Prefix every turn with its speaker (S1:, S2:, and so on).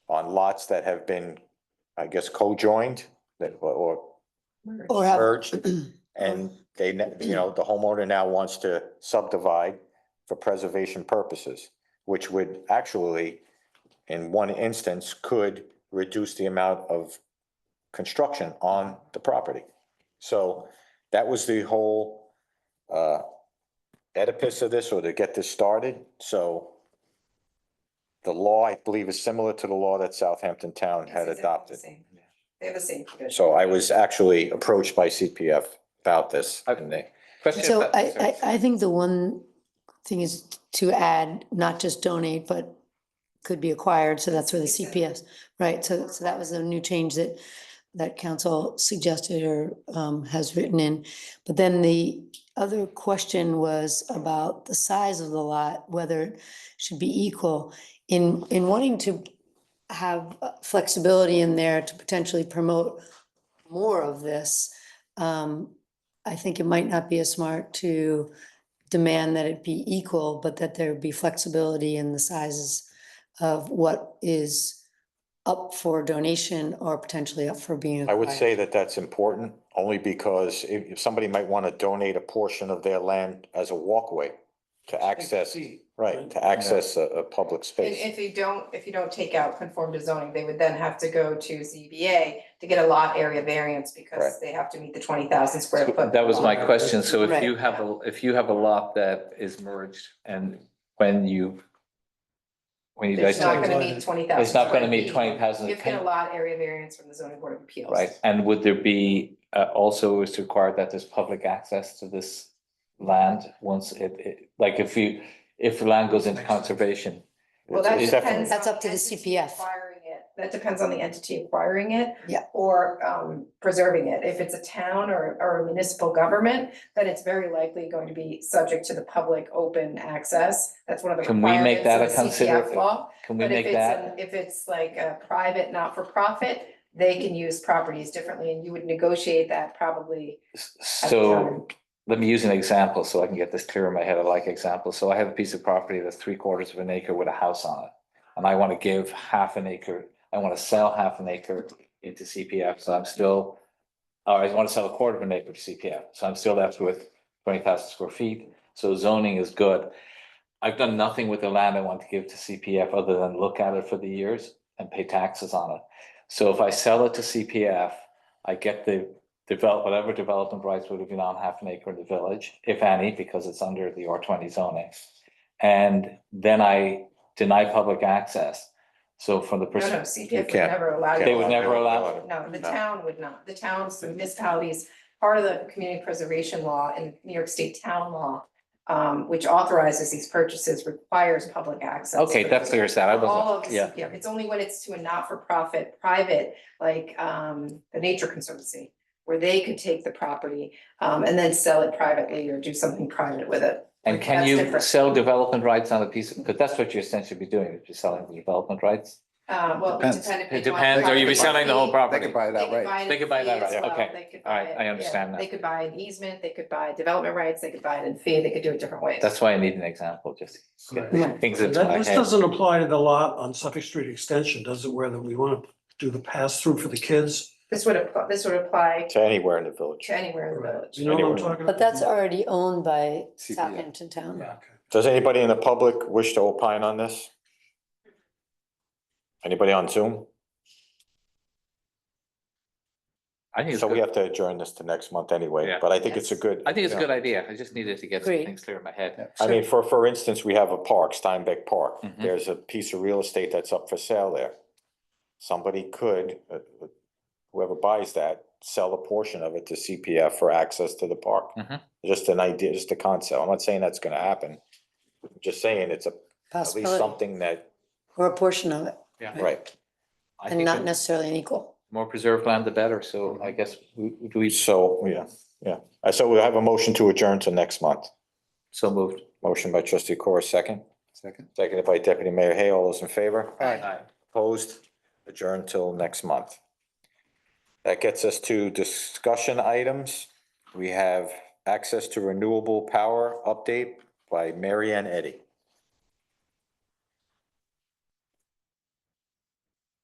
S1: lots that have been, I guess, co-joined that, or- or
S2: Or have,
S1: merged. And they, ne- you know, the homeowner now wants to subdivide for preservation purposes, which would actually, in one instance, could reduce the amount of construction on the property. So that was the whole uh edifice of this, or to get this started, so the law, I believe, is similar to the law that Southampton Town had
S3: Yes, it's
S1: adopted.
S3: the same. They have the same provision.
S1: So I was actually approached by CPF about this, and they,
S4: Question.
S2: so
S4: about-
S2: I, I, I think the one thing is to add, not just donate, but could be acquired, so that's where the CPS, right, so, so that was the new change that, that council suggested or, um, has written in. But then the other question was about the size of the lot, whether it should be equal. In, in wanting to have uh, flexibility in there to potentially promote more of this, um, I think it might not be as smart to demand that it be equal, but that there be flexibility in the sizes of what is up for donation or potentially up for being
S1: I would
S2: acquired.
S1: say that that's important, only because if, if somebody might want to donate a portion of their land as a walkway to access, right, to access a, a public
S3: And
S1: space.
S3: if you don't, if you don't take out conform to zoning, they would then have to go to ZBA to get a lot area variance
S1: Right.
S3: because they have to meet the twenty thousand square
S4: So
S3: foot.
S4: That was my question. So if
S2: Right.
S4: you have, a if you have a lot that is merged and when you, when you
S3: It's
S4: guys,
S3: not
S4: take-
S3: gonna meet twenty thousand.
S4: it's not gonna meet twenty thousand.
S3: You have to get a lot area variance from the zoning board of appeals.
S4: Right, and would there be, uh, also is required that there's public access to this land once it, it, like if you, if the land goes into conservation?
S3: Well, that
S1: It's
S3: depends.
S1: definitely-
S3: on
S2: That's up to the
S3: entity
S2: CPF.
S3: Acquiring it, that depends on the entity acquiring it.
S2: Yeah.
S3: Or um preserving it. If it's a town or or a municipal government, then it's very likely going to be subject to the public open access. That's one of the
S4: Can we make
S3: requirements
S4: that
S3: of
S4: a
S3: the CPF
S4: consider-
S3: law.
S4: Can we
S3: But if
S4: make
S3: it's,
S4: that?
S3: an- if it's like a private, not-for-profit, they can use properties differently and you would negotiate that probably.
S4: S-
S3: at the
S4: So
S3: time.
S4: let me use an example so I can get this clear in my head. I like examples. So I have a piece of property that's three quarters of an acre with a house on it. And I want to give half an acre, I want to sell half an acre into CPF, so I'm still. Or I want to sell a quarter of an acre to CPF, so I'm still left with twenty thousand square feet, so zoning is good. I've done nothing with the land I want to give to CPF other than look at it for the years and pay taxes on it. So if I sell it to CPF, I get the develop, whatever development rights would have been on half an acre in the village, if any, because it's under the R twenty zoning. And then I deny public access. So from the
S3: No, no,
S4: perspective,
S3: CPF would
S1: can't-
S3: never allow. you
S4: They
S3: to-
S4: would never allow
S3: No, the
S1: No.
S3: town would not. The towns, the municipalities, part of the community preservation law and New York State town law, um, which authorizes these purchases, requires public access.
S4: okay,
S3: for
S4: that
S3: those.
S4: clears that. I
S3: All of
S4: wasn't,
S3: the
S4: yeah.
S3: CPF. It's only when it's to a not-for-profit, private, like, um, the Nature Conservancy, where they could take the property, um, and then sell it privately or do something private with it.
S4: And
S3: Like,
S4: can
S3: that's
S4: you
S3: different.
S4: sell development rights on a piece of, because that's what you're essentially be doing, if you're selling the development rights?
S3: Uh, well,
S5: Depends.
S3: depending.
S4: It depends, or you'd be selling the whole
S5: They
S4: property?
S5: could buy it outright.
S4: They could buy that right, okay. All right, I understand that.
S3: They could buy an easement, they could buy development rights, they could buy it in fee, they could do it different ways.
S4: That's why I need an example, just to get
S2: Right.
S4: things
S5: That,
S4: into my
S5: this
S4: head.
S5: doesn't apply to the lot on Suffolk Street Extension, does it, where that we want to do the pass-through for the kids?
S3: This would apply, this would apply
S1: To anywhere in the village.
S3: to anywhere in the village.
S5: You know what I'm
S1: Anywhere.
S5: talking about?
S2: But that's already owned by
S5: CPF.
S2: Southampton Town.
S5: Yeah, okay.
S1: Does anybody in the public wish to opine on this? Anybody on Zoom?
S4: I think it's
S1: So we
S4: good,
S1: have to adjourn this to next month anyway,
S4: Yeah.
S1: but I think it's a
S3: Yes.
S1: good.
S4: I think it's a
S1: yeah.
S4: good idea, I just needed to get some
S2: Agreed.
S4: things clear in my head.
S1: I mean, for, for instance, we have a park, Steinbeck Park.
S4: Mhm.
S1: There's a piece of real estate that's up for sale there. Somebody could, uh, uh, whoever buys that, sell a portion of it to CPF for access to the park.
S4: Mhm.
S1: Just an idea, just a concept. I'm not saying that's gonna happen. I'm Just saying it's a, at least
S2: Possibility,
S1: something that,
S2: or a portion of it,
S1: right.
S4: I
S2: and
S4: think
S2: not
S4: the
S2: necessarily an equal.
S4: More preserved land, the better, so I guess, we do we,
S1: So, yeah, yeah. Uh, So we'll have a motion to adjourn to next month.
S4: so moved.
S1: Motion by trustee Corr, second. Second. Seconded by deputy mayor Hay. All those in favor?
S4: Aye.
S1: Opposed, adjourned till next month. That gets us to discussion items. We have access to renewable power update by Mary Ann Eddy.